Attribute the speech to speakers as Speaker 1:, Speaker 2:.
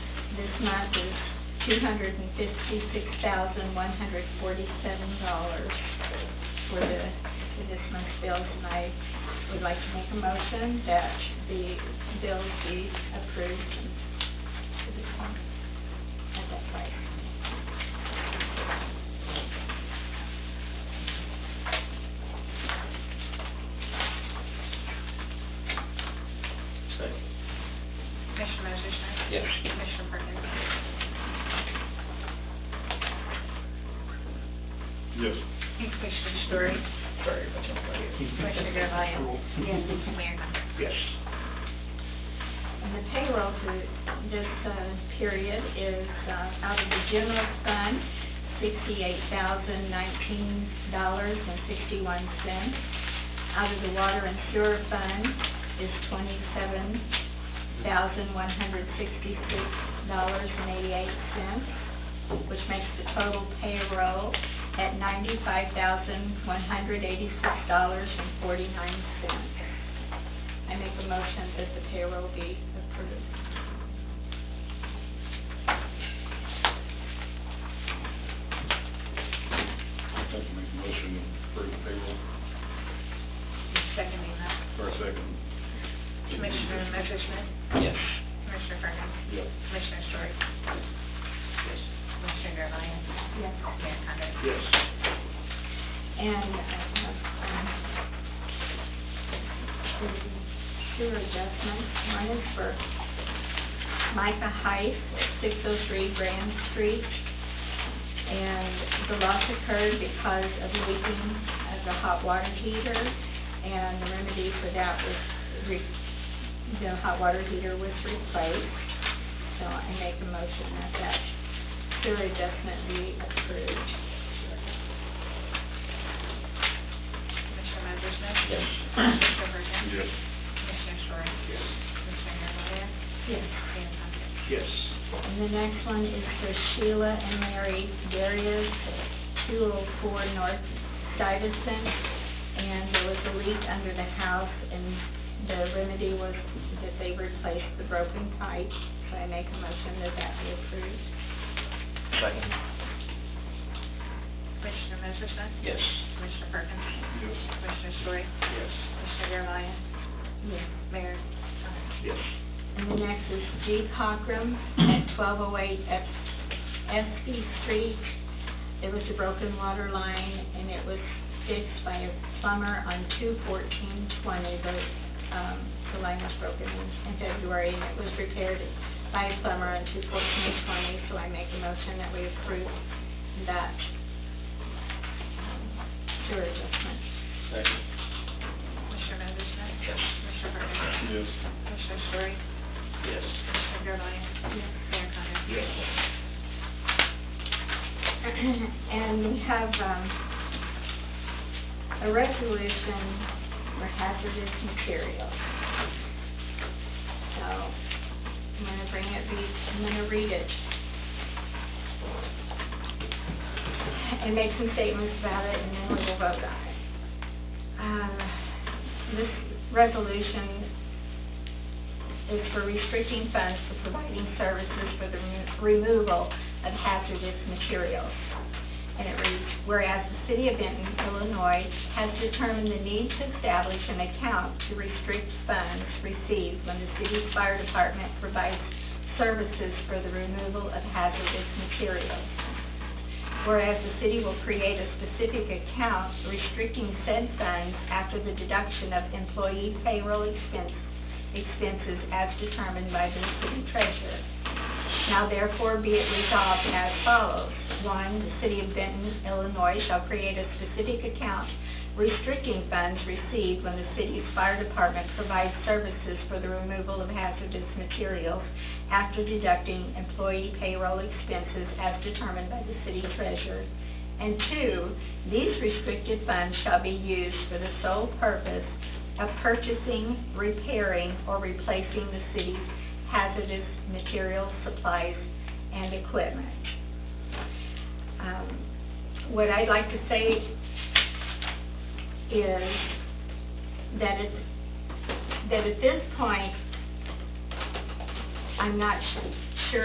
Speaker 1: month is two hundred and fifty-six thousand, one hundred forty-seven dollars for the, for this month's bills, and I would like to make a motion that the bills be approved to the court at that price.
Speaker 2: Commissioner Messersohn?
Speaker 3: Yes.
Speaker 2: Commissioner Perkins?
Speaker 4: Yes.
Speaker 2: And Commissioner Story?
Speaker 3: Very much everybody.
Speaker 2: Commissioner Garvelia? Yes. Mayor Hunt?
Speaker 3: Yes.
Speaker 1: And the payroll for this uh, period is uh, out of the general fund, $68,019.61. Out of the water and sewer fund is $27,166.88, which makes the total payroll at $95,186.49. I make a motion that the payroll be approved.
Speaker 4: I'd like to make a motion for the payroll
Speaker 2: Seconding that.
Speaker 4: for a second.
Speaker 2: Commissioner Messersohn?
Speaker 3: Yes.
Speaker 2: Commissioner Perkins?
Speaker 4: Yes.
Speaker 2: Commissioner Story? Commissioner Garvelia?
Speaker 1: Yes.
Speaker 2: Mayor Condon?
Speaker 4: Yes.
Speaker 1: And, um, um, two adjustments. One is for Micah Height, 603 Grand Street. And the loss occurred because of leaking of the hot water heater. And the remedy for that was, re- the hot water heater was replaced. So I make a motion that that sewer adjustment be approved.
Speaker 2: Commissioner Messersohn?
Speaker 3: Yes.
Speaker 2: Commissioner Perkins?
Speaker 4: Yes.
Speaker 2: Commissioner Story?
Speaker 3: Yes.
Speaker 2: Commissioner Garvelia?
Speaker 1: Yes.
Speaker 2: Mayor Condon?
Speaker 3: Yes.
Speaker 1: And the next one is for Sheila and Mary Darius, 204 North Stuyvesant. And there was a leak under the house, and the remedy was that they replaced the broken pipe. So I make a motion that that be approved.
Speaker 3: Second.
Speaker 2: Commissioner Messersohn?
Speaker 3: Yes.
Speaker 2: Commissioner Perkins?
Speaker 4: Yes.
Speaker 2: Commissioner Story?
Speaker 3: Yes.
Speaker 2: Commissioner Garvelia?
Speaker 1: Yes.
Speaker 2: Mayor Condon?
Speaker 3: Yes.
Speaker 1: And the next is G. Cochran at 1208 F- Espy Street. It was a broken water line, and it was fixed by a plumber on 2/14/20. The um, the line was broken in in February, and it was repaired by a plumber on 2/14/20. So I make a motion that we approve that um, sewer adjustment.
Speaker 3: Second.
Speaker 2: Commissioner Messersohn?
Speaker 3: Yes.
Speaker 2: Commissioner Perkins?
Speaker 4: Yes.
Speaker 2: Commissioner Story?
Speaker 3: Yes.
Speaker 2: Commissioner Garvelia? Mayor Condon?
Speaker 4: Yes.
Speaker 1: And we have um, a resolution for hazardous materials. So I'm going to bring it, read- I'm going to read it. And make some statements about it, and then we will vote on it. Um, This resolution is for restricting funds for providing services for the remo- removal of hazardous materials. And it reads, whereas the city of Benton, Illinois has determined the need to establish an account to restrict funds received when the city's fire department provides services for the removal of hazardous materials. Whereas the city will create a specific account restricting said funds after the deduction of employee payroll expense- expenses as determined by the city treasurer. Now therefore be it resolved as follows. One, the city of Benton, Illinois shall create a specific account restricting funds received when the city's fire department provides services for the removal of hazardous materials after deducting employee payroll expenses as determined by the city treasurer. And two, these restricted funds shall be used for the sole purpose of purchasing, repairing, or replacing the city's hazardous materials, supplies, and equipment. Um, What I'd like to say is that it's, that at this point, I'm not su-